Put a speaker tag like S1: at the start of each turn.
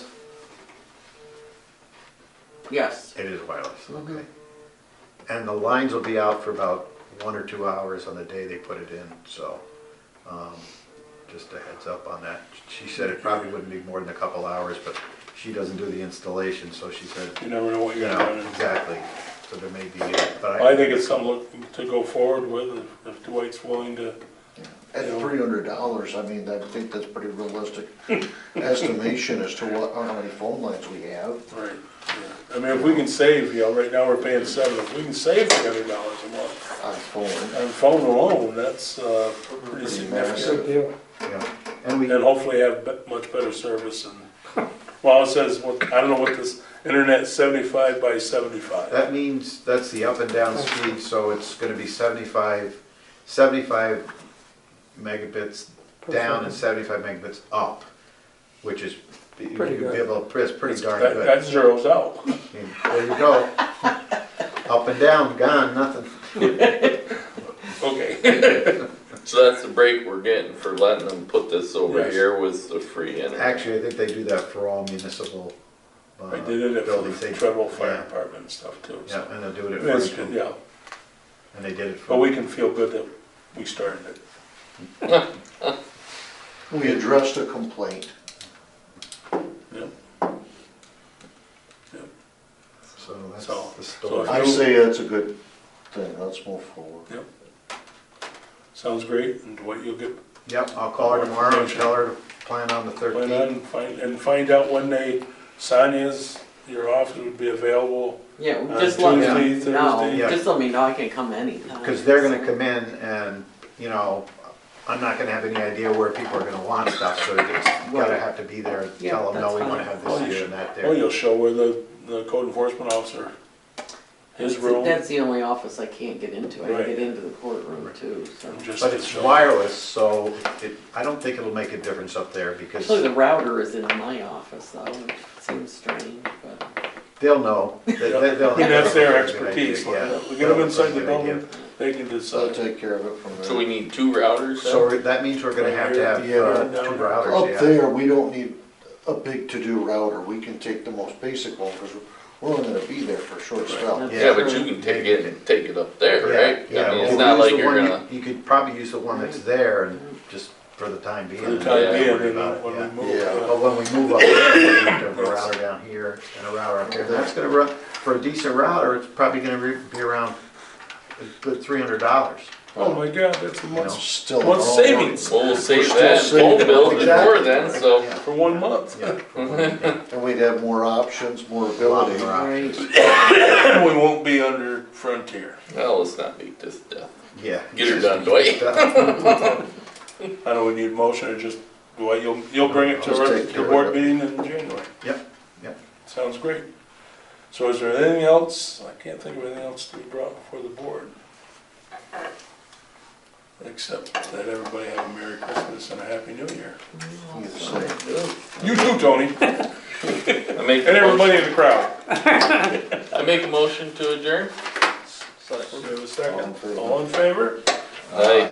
S1: Yes.
S2: It is wireless, okay.
S1: Mhm.
S2: And the lines will be out for about one or two hours on the day they put it in, so um, just a heads up on that. She said it probably wouldn't be more than a couple hours, but she doesn't do the installation, so she said,
S3: You never know what
S2: you
S3: you're
S2: know,
S3: gonna do.
S2: exactly, so there may be, but
S3: I think it's something look- to go forward with, if- if Dwight's willing to,
S4: At three hundred dollars, I mean, I think that's pretty realistic estimation as to what, how many phone lines we have.
S3: right. yeah. I mean, if we can save, you know, right now we're paying seven, if we can save three hundred dollars a month
S4: on phone.
S3: on phone alone, that's, uh, pretty significant.
S4: massive.
S5: deal.
S2: Yeah, and we,
S3: And hopefully have be- much better service and, well, it says, what- I don't know what this, internet seventy-five by seventy-five.
S2: that means, that's the up and down speed, so it's gonna be 75, 75 megabits down and seventy-five megabits up, which is, you'd
S5: Pretty
S2: be
S5: good.
S2: able, it's pretty darn
S3: That,
S2: good.
S3: that zeroes out.
S2: And There you go. Up and down, gone, nothing.
S3: Okay,
S6: So that's the break we're getting for letting them put this over
S3: Yes.
S6: here with the free internet.
S2: Actually, I think they do that for all municipal uh,
S3: I
S2: buildings.
S3: did it for
S2: They-
S3: the Trumbull Fire
S2: yeah,
S3: Department and stuff too, so.
S2: Yeah, and they'll do it at
S3: It's
S2: first,
S3: good,
S2: and
S3: Yeah,
S2: they did it
S3: but
S2: for,
S3: we can feel good that we started it.
S4: We addressed a complaint.
S3: Yep.
S2: so that's
S3: So-
S2: the
S3: so if
S2: story.
S4: I say that's a good thing, let's move forward.
S3: Yep. Sounds great, and Dwight, you'll get,
S2: Yep, I'll call her tomorrow and tell her to plan on the
S3: plan
S2: thirteenth.
S3: on, find, and find out when they, Sonia's, your office would be available
S1: Yeah,
S3: on
S1: just let me
S3: Uh, Tuesday,
S1: know.
S3: Thursday.
S2: Yeah.
S1: Just let me know. I can come anytime.
S2: Because they're gonna come in and, you know, I'm not gonna have any idea where people are gonna want stuff, so it's gotta
S1: Right.
S2: have to be there. and
S1: Yeah,
S2: Tell them, no,
S1: that's
S2: we wanna
S1: fine.
S2: have
S3: Oh,
S2: this
S3: you
S2: here
S3: should-
S2: and that
S3: Or
S2: there.
S3: you'll show where the, the code enforcement officer, his
S1: That's-
S3: room.
S1: That's the only office I can't get into. I
S3: Right.
S1: can get into the courtroom too, so.
S3: and just
S2: But
S3: to
S2: it's
S3: show.
S2: wireless, so it, I don't think it'll make a difference up there because.
S3: Oh,
S1: Actually, the router is in my office though, which seems strange, but
S2: They'll know. They- they- they'll-
S3: I mean, that's their
S2: they'll have a good
S3: expertise,
S2: idea, yeah.
S3: we get them inside the
S2: They'll have a good
S3: building, they can
S4: So I'll
S3: decide.
S4: take care of it from there.
S6: So we need two
S2: idea.
S6: routers
S2: So
S6: then?
S2: we're- that means we're gonna have to have uh,
S3: Yeah.
S2: two
S4: Up
S2: routers, yeah.
S4: there, we don't need a big to-do router, we can take the most basic one, because we're only gonna be there for a short spell.
S1: Right.
S6: Yeah, but you can take it and take it up there,
S2: Yeah,
S6: right?
S2: yeah,
S6: I mean,
S2: we'll
S6: it's not
S2: use
S6: like
S2: the
S6: you're
S2: one
S6: gonna,
S2: you- You could probably use the one that's there and just for the time being.
S3: For the
S6: Yeah.
S3: time
S2: don't
S3: being,
S2: worry about
S3: and
S2: it,
S3: when
S2: yeah.
S3: we move.
S4: Yeah.
S3: uh,
S2: But when we move up there, we need to have a router down here and a router up there. And That's gonna run, for a decent router, it's probably gonna re- be around a good three hundred dollars.
S3: Oh my God, that's a month,
S4: Still.
S3: What's
S4: all
S3: savings?
S6: well, we'll save
S4: still
S6: that
S4: saving
S6: phone
S4: it.
S6: bill and more
S2: Exactly.
S6: then, so.
S3: for one month.
S2: Yeah.
S4: And we'd have more options, more
S2: A lot
S4: ability.
S2: more options.
S3: We won't be under Frontier.
S6: Well, let's not beat this to death.
S2: Yeah.
S6: Get her done, Dwight.
S3: I don't need motion, or just, well, you'll, you'll bring it to
S4: Just
S3: our-
S4: take
S3: the
S4: care of
S3: board
S4: it.
S3: meeting in January.
S2: Yep, yep.
S3: Sounds great. So is there anything else? I can't think of anything else to be brought before the board. Except that everybody have a Merry Christmas and a Happy New Year.
S4: You say.
S3: You too, Tony, and
S6: I make, a
S3: everybody
S6: motion-
S3: in the crowd.
S6: I make a motion to adjourn?
S3: We'll give it a
S4: All in
S3: second.
S4: favor?
S3: All in favor?
S6: Aye.